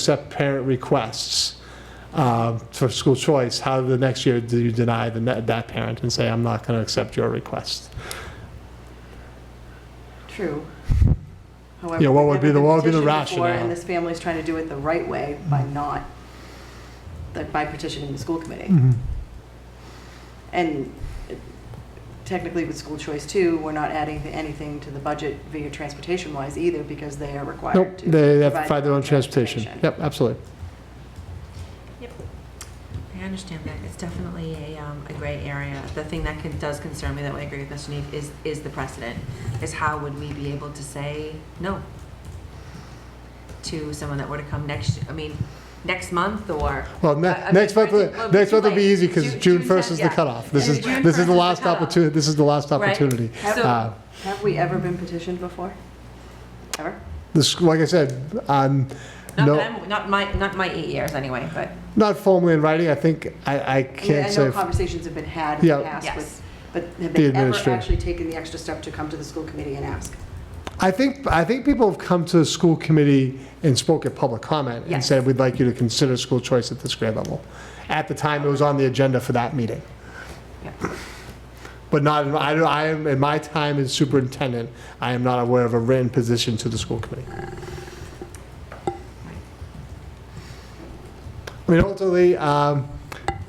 accept parent requests um, for school choice, how the next year do you deny the, ne- that parent and say, I'm not going to accept your request? True. Yeah, what would be the- what would be the rationale? Mm. And this family's trying to do it the right way by not, like by petitioning the school Mm. committee. And technically with school choice too, we're not adding anything to the budget via transportation wise either because they are required Nope, to. they have to provide find their own transportation. Yep, absolutely. I understand that. It's definitely a, um, a gray area. The thing that can, does concern me, that I agree with Mr. Neef, is, is the precedent, is how would we be able to say no to someone that were to come next, I mean, next month or? Well, ne- Uh, I- I mean, next month, I think we'll be next too month will be late. easy because Ju- June 1st 10th, is the yeah. cutoff. This is, June this is 1st the last cutoff. opportunity, this is the last Right. opportunity. So- Uh, Have we ever been petitioned before? Ever? The sch like I said, um, Not no, that I'm, not my, not my eight years anyway, but not formally in writing, I think, I, I I mean, I can't say. know if- conversations have been had in the Yeah. past yes. with, but have The they ever administrator. actually taken the extra step to come to the school committee and ask? I think, I think people have come to the school committee and spoke at public comment and Yes. said, we'd like you to consider school choice at this grade level. At the time, it was on the agenda for that meeting. Yeah. But not, in- I, don't- I am, in my time as superintendent, I am not aware of a written position to the school committee. I mean, ultimately, um,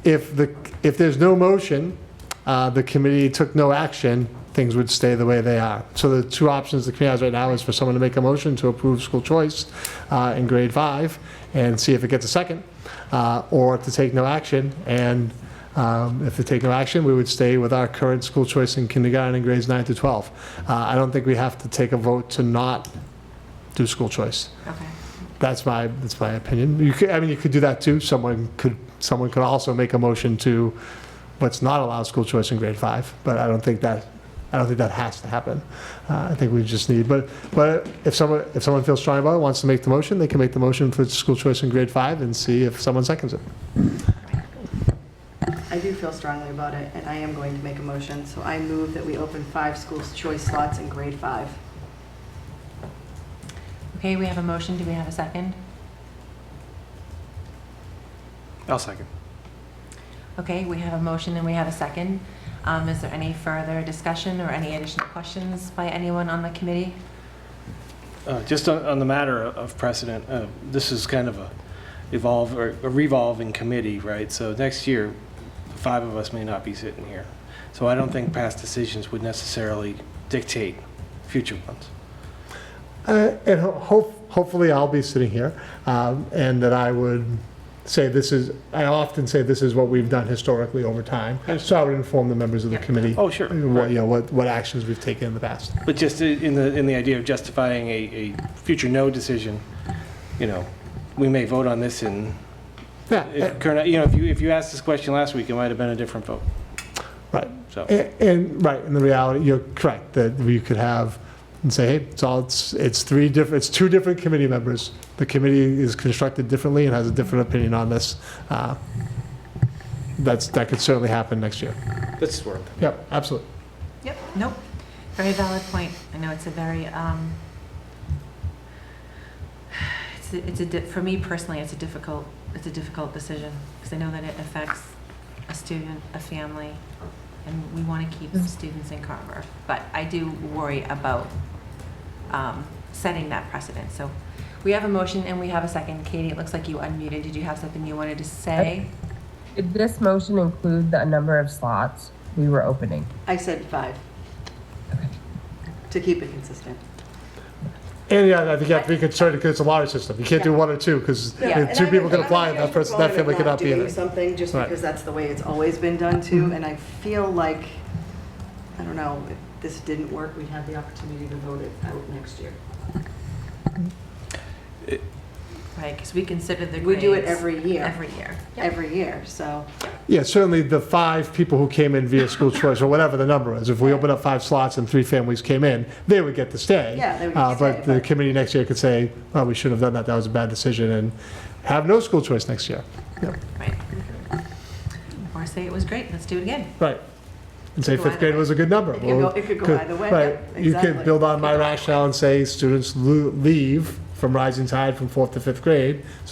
if the, if there's no motion, uh, the committee took no action, things would stay the way they are. So the two options the committee has right now is for someone to make a motion to approve school choice uh, in grade five and see if it gets a second, uh, or to take no action. And um, if they take no action, we would stay with our current school choice in kindergarten and grades nine to 12. Uh, I don't think we have to take a vote to not do school choice. okay. That's my, that's my opinion. You could, I mean, you could do that too. Someone could, someone could also make a motion to, let's not allow school choice in grade five, but I don't think that, I don't think that has to happen. Uh, I think we just need, but, but if someone, if someone feels strong about it, wants to make the motion, they can make the motion for school choice in grade five and see if someone seconds it. I do feel strongly about it, and I am going to make a motion, so I move that we open five schools choice slots in grade five. Okay, we have a motion. Do we have a second? I'll second. Okay, we have a motion and we have a second. Um, is there any further discussion or any additional questions by anyone on the committee? Uh, Just on on the matter of- of precedent, uh, this is kind of a evolve, or a revolving committee, right? So next year, five of us may not be sitting here. So I don't think past decisions would necessarily dictate future ones. Uh, And ho- hope- hopefully, I'll be sitting here, um, and that I would say this is, I often say this is what we've done historically over time. So I would inform the members of the Yeah. committee. Oh, sure. What, you know, what, what actions we've taken in the past. But just i- in the, in the idea of justifying a, a future no decision, you know, we may vote on this in, Yeah, if current- you know, if you, if you asked this question last week, it might have been a different vote. Right. So. a- and, right, in the reality, you're correct, that you could have, and say, hey, it's all, it's, it's three different, it's two different committee members. The committee is constructed differently and has a different opinion on this. Uh, That's, that could certainly happen next year. That's worth. Yep, absolutely. Yep. Nope. Very valid point. I know it's a very, um, it's, a- it's a, di- for me personally, it's a difficult, it's a difficult decision, because I know that it affects a student, a family, and we want to keep students in Carver. But I do worry about, um, setting that precedent, so we have a motion and we have a second. Katie, it looks like you unmuted. Did you have something you wanted to say? Did this motion include the number of slots we were opening? I said five. To keep it consistent. And yeah, I think you have to be concerned because it's a lottery system. You can't do one or two because two people can apply and that person, that family cannot be in Doing it. something just Right. Mm-hmm. because that's the way it's always been done too, and I feel like, I don't know, if this didn't work, we'd have the opportunity to vote it out next year. Right, because we consider the We do it grades every year, Every year. every year, so. Yeah, certainly the five people who came in via school choice or whatever the number is, if we open up five slots and three families came in, they would get to stay. Yeah, they would Uh, get to But stay, the but- committee next year could say, well, we shouldn't have done that, that was a bad decision and have no school choice next year. Right. Or say it was great, let's do it again. Right. And say Go fifth either grade way. was a good number. It could go- Well, it could go either way, Right, yep, you could exactly. build on my rationale and say students lo- leave from rising tide from fourth to fifth grade, so